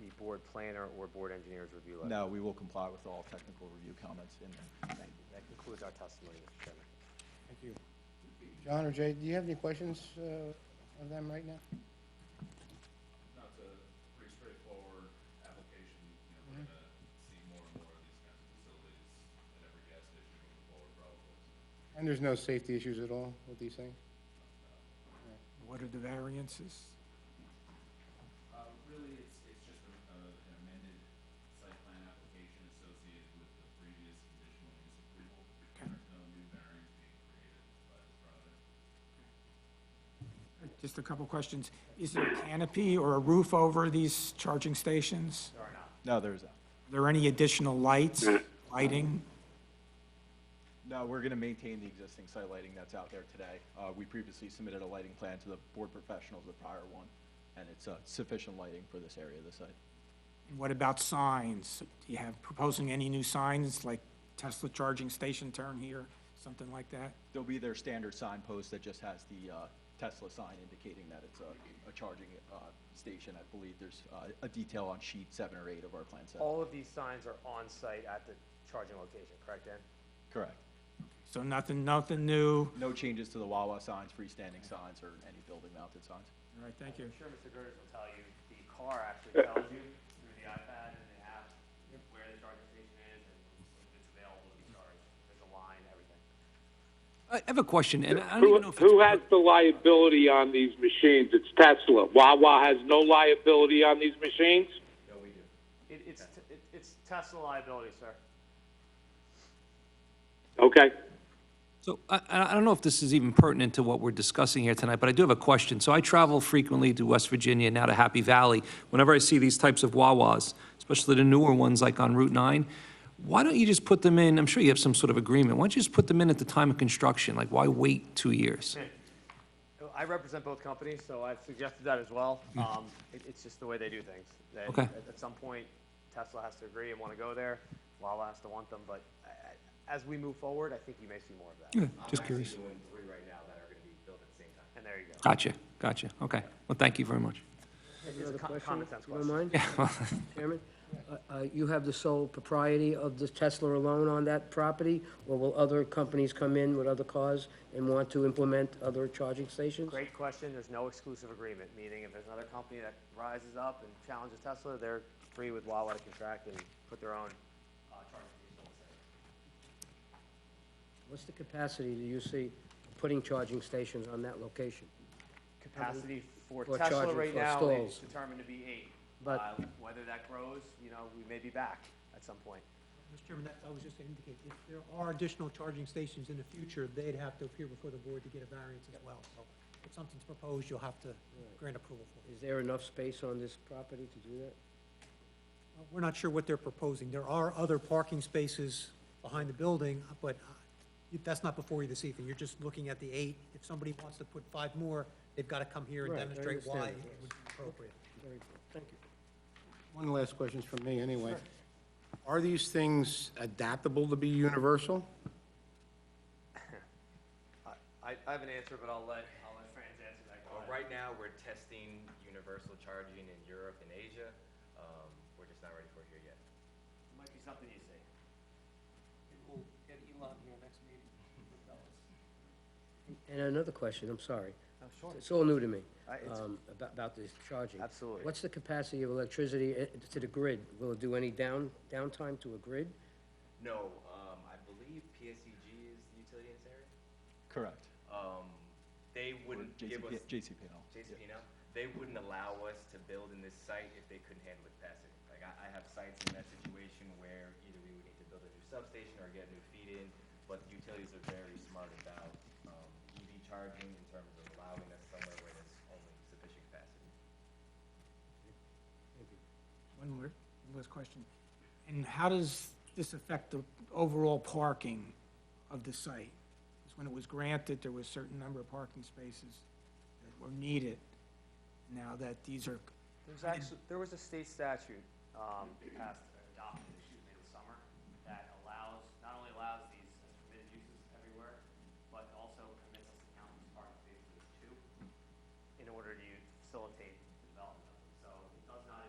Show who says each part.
Speaker 1: the board planner or board engineer's review letter?
Speaker 2: No, we will comply with all technical review comments in there.
Speaker 1: Thank you. That concludes our testimony, Mr. Chairman.
Speaker 3: Thank you. John or Jay, do you have any questions uh, of them right now?
Speaker 4: No, it's a pretty straightforward application, you know, we're
Speaker 3: Mm-hmm.
Speaker 4: gonna see more and more of these kinds of facilities at every gas station moving forward probably.
Speaker 3: And there's no safety issues at all with these things?
Speaker 5: What are the variances?
Speaker 4: Uh, really, it's, it's just a, a- an amended site plan application associated with the previous conditional use approval. There's no new variance being created by this project.
Speaker 5: Just a couple questions. Is there a canopy or a roof over these charging stations?
Speaker 2: No, there's, not.
Speaker 5: Are there any additional lights, lighting?
Speaker 2: no, we're going to maintain the existing site lighting that's out there today. Uh, We previously submitted a lighting plan to the board professionals, the prior one, and it's uh, sufficient lighting for this area of the site.
Speaker 5: And What about signs? Do you have, proposing any new signs, like Tesla charging station turn here, something like that?
Speaker 2: There'll be their standard signpost that just has the uh, Tesla sign indicating that it's a- a charging uh, station. I believe there's uh, a detail on sheet seven or eight of our plan set.
Speaker 1: All of these signs are on-site at the charging location, correct, Dan?
Speaker 2: Correct.
Speaker 5: So nothing, nothing new?
Speaker 2: No changes to the Wawa signs, freestanding signs, or any building-mounted signs.
Speaker 5: All right, thank you.
Speaker 1: I'm sure Mr. Gertis will tell you, the car actually tells you through the iPad and the app where the charging station is and if it's available to be charged. There's a line, everything.
Speaker 6: I have a question, and I don't
Speaker 7: Who,
Speaker 6: even know if it's.
Speaker 7: who has the liability on these machines? It's Tesla. Wawa has no liability on these machines?
Speaker 1: It, it's, t- it- it's Tesla liability, sir.
Speaker 7: Okay.
Speaker 6: So I, I I don't know if this is even pertinent to what we're discussing here tonight, but I do have a question. So I travel frequently to West Virginia, now to Happy Valley. Whenever I see these types of Wawas, especially the newer ones like on Route 9, why don't you just put them in, I'm sure you have some sort of agreement, why don't you just put them in at the time of construction? Like, why wait two years?
Speaker 1: I represent both companies, so I've suggested that as well. Um, it, it's just the way they do things. They,
Speaker 6: Okay.
Speaker 1: At, at some point, Tesla has to agree and want to go there. Wawa has to want them, but I, I, as we move forward, I think you may see more of that.
Speaker 6: Just curious.
Speaker 1: doing three right now that are going to be built at the same time. And there you go.
Speaker 6: Gotcha, gotcha. Okay. Well, thank you very much.
Speaker 8: Another
Speaker 1: co-
Speaker 8: question,
Speaker 1: common sense
Speaker 8: if you don't
Speaker 1: question.
Speaker 8: mind, Chairman? Uh, uh, You have the sole propriety of the Tesla alone on that property, or will other companies come in with other cars and want to implement other charging stations?
Speaker 1: Great question. There's no exclusive agreement, meaning if there's another company that rises up and challenges Tesla, they're free with Wawa to contract and put their own uh, charging station. on site.
Speaker 8: What's the capacity do you see putting charging stations on that location?
Speaker 1: Capacity for
Speaker 8: For
Speaker 1: Tesla
Speaker 8: charging
Speaker 1: right
Speaker 8: for
Speaker 1: now is
Speaker 8: stalls.
Speaker 1: determined to be eight.
Speaker 8: But-
Speaker 1: Uh, Whether that grows, you know, we may be back at some point.
Speaker 9: Mr. Chairman, that, I was just to indicate, if there are additional charging stations in the future, they'd have to appear before the board to get a variance as well. So if something's proposed, you'll have to grant approval for it.
Speaker 8: Is there enough space on this property to do that?
Speaker 9: Uh, We're not sure what they're proposing. There are other parking spaces behind the building, but uh, that's not before you this evening. You're just looking at the eight. If somebody wants to put five more, they've got to come here and
Speaker 8: Right, I
Speaker 9: demonstrate why it
Speaker 8: understand.
Speaker 9: would be appropriate.
Speaker 8: Very good, thank you.
Speaker 3: One last question from me, anyway. Are these things adaptable to be universal?
Speaker 1: I, I have an answer, but I'll let, I'll let Franz answer that
Speaker 10: Well,
Speaker 1: question.
Speaker 10: right now, we're testing universal charging in Europe and Asia. Um, we're just not ready for it here yet.
Speaker 1: Might be something you see.
Speaker 8: And another question, I'm sorry.
Speaker 1: Oh, sure.
Speaker 8: It's all new to me,
Speaker 1: Uh, it's-
Speaker 8: um, about, about this charging.
Speaker 1: Absolutely.
Speaker 8: What's the capacity of electricity eh, to the grid? Will it do any down, downtime to a grid?
Speaker 10: No, um, I believe
Speaker 1: E
Speaker 10: PSEG is the utility in this area.
Speaker 2: Correct.
Speaker 10: Um, they wouldn't give us,
Speaker 2: JCP,
Speaker 10: JCPenney, they wouldn't allow us to build in this site if they couldn't handle its capacity. Like, I, I have sites in that situation where either we would need to build a new substation or get a new feed in, but the utilities are very smart about, um, EV charging in terms of allowing us somewhere where there's only sufficient capacity.
Speaker 5: One more, one last question. And how does this affect the overall parking of the site? Because when it was granted, there was a certain number of parking spaces that were needed. Now that these are,
Speaker 1: There's actually, there was a state statute, um, passed, adopted